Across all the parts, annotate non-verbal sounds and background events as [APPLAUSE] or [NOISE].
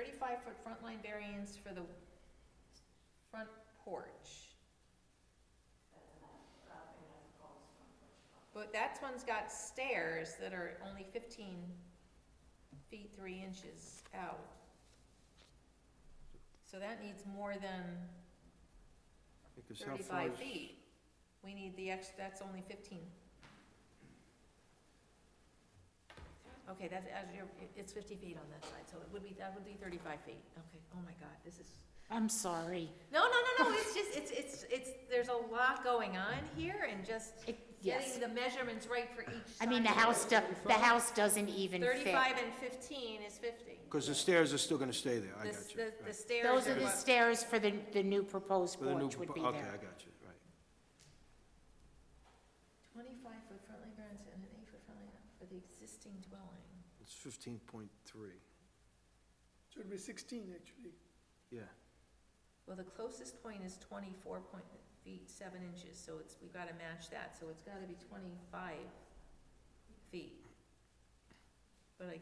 thirty-five foot front line variance for the front porch. But that one's got stairs that are only fifteen feet, three inches out. So that needs more than Because how far thirty-five is- feet. We need the ex, that's only fifteen. Okay, that's, as you're, it's fifty feet on that side, so it would be, that would be thirty-five feet. Okay, oh my God, this is. I'm sorry. No, no, no, no, it's just, it's, it's, it's, there's a lot going on here and just It- getting Yes. the measurements right for each I mean, the side. house, do- the house doesn't even fit. Thirty-five and fifteen is fifty. Because the stairs are still gonna stay there, I The- got you. The, the right. stairs Those are the what- stairs for the, the new proposed With a new porch would propo- be Okay, I there. got you, right. Twenty-five foot front line variance and an eight foot front line for the existing dwelling. It's fifteen point three, Should be sixteen, actually. yeah. Well, the closest point is twenty-four point, feet, seven inches, so it's, we've gotta match that, so it's gotta be twenty-five feet. But I.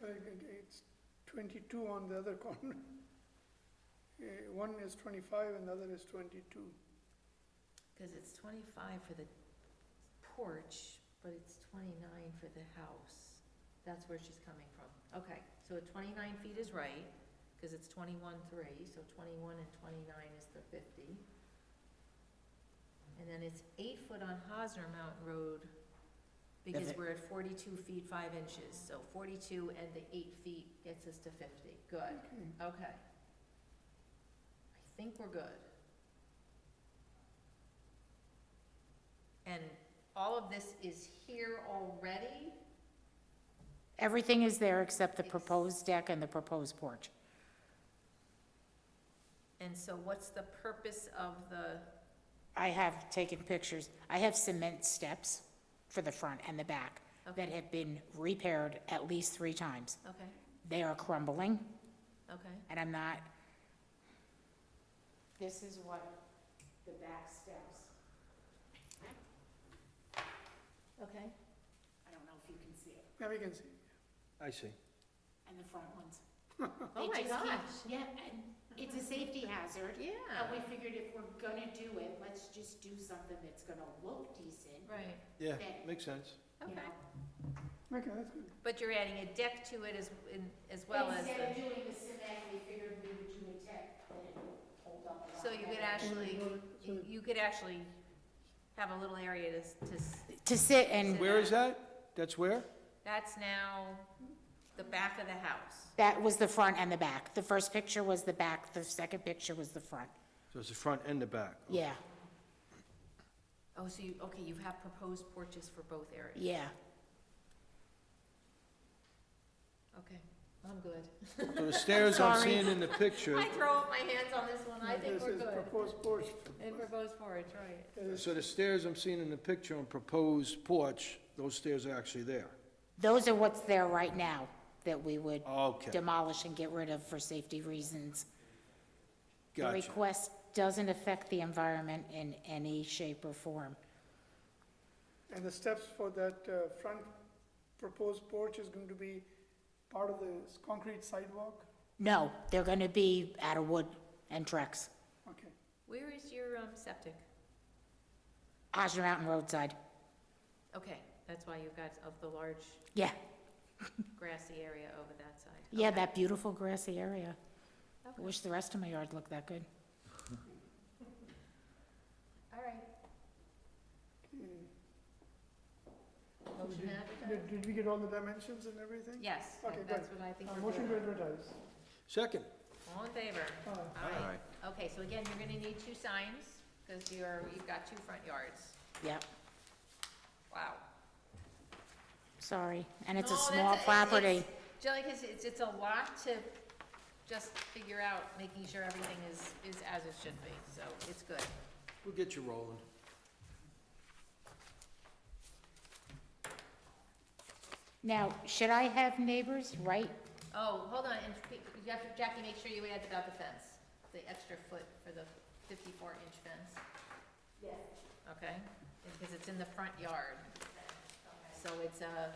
So I think Uh, It's twenty-two on the other [LAUGHS] corner. Eh, One is twenty-five and the other is twenty-two. Cause it's twenty-five for the porch, but it's twenty-nine for the house. That's where she's coming from. Okay, so twenty-nine feet is right, cause it's twenty-one three, so twenty-one and twenty-nine is the fifty. And then it's eight foot on Hosner Mountain Road, because it- we're at forty-two feet five inches, so forty-two and the eight feet gets us to fifty. Good, Okay. okay. I think we're good. And all of this is here already? Everything is there except the proposed deck and the proposed porch. And so what's the purpose of the, I have taken pictures. I have cement steps for the front and the back that have been repaired at least three times. okay, They are crumbling, okay, and I'm not. This is what the back steps, okay? I don't know if you can see it, Now we can see. I see. and the front ones. Oh They my just keep- gosh, Yeah, and it's a [LAUGHS] safety hazard. yeah, And we figured if we're gonna do it, let's just do something that's gonna look decent, right, Yeah, Okay. makes sense. you okay. know? Okay, that's good. But you're adding a deck to it as, in- as well as Instead of the, doing the cement, we figured we would do a tech, and it'll hold up a lot so you could better. actually, So- you could actually have a little area to, s- to, s- To sit and- and, Where is that? That's where? that's now the back of the house. that was the front and the back. The first picture was the back, the second picture was the front. So it's the front and the back. Yeah, Oh, so you, okay, you have proposed porches for both areas? yeah. Okay, I'm good. So the [LAUGHS] stairs I'm Sorry. seeing in the [LAUGHS] picture, I throw up my hands on this one, I think This we're is good. proposed porch. And proposed porch, right. Yes. so the stairs I'm seeing in the picture on proposed porch, those stairs are actually there. Those are what's there right now that we would Okay, demolish and get rid of for safety reasons. The gotcha. request doesn't affect the environment in any shape or form. And the steps for that uh, front proposed porch is going to be part of the s- concrete sidewalk? No, they're gonna be out of wood and Trex, Okay. Where is your um, septic? Osner Mountain roadside, Okay, that's why you've got of the large yeah, grassy area over that side. yeah, Okay. that beautiful grassy area. I Okay. Wish the rest of my yard looked that good. All right. Mm. Motion Did- advertised? Did, did we get all the dimensions and everything? Yes, Okay, that's what I think Uh, we're Motion to doing. advertise. Second. All in favor? Uh, All right. Okay, so again, you're gonna need two signs, because you're, you've got two front yards. Yep, Wow. sorry, and it's a No, that's small it's- property. it's- Jelly, 'cause it's, it's a lot to just figure out, making sure everything is, is as it should be, so it's good. We'll get you rolling. Now, should I have neighbors, right? Oh, hold on, and pe- you have to- Jackie, make sure you add about the fence, the extra foot for the fifty-four inch fence. Yes. Okay, because it's in the front yard. so it's uh, a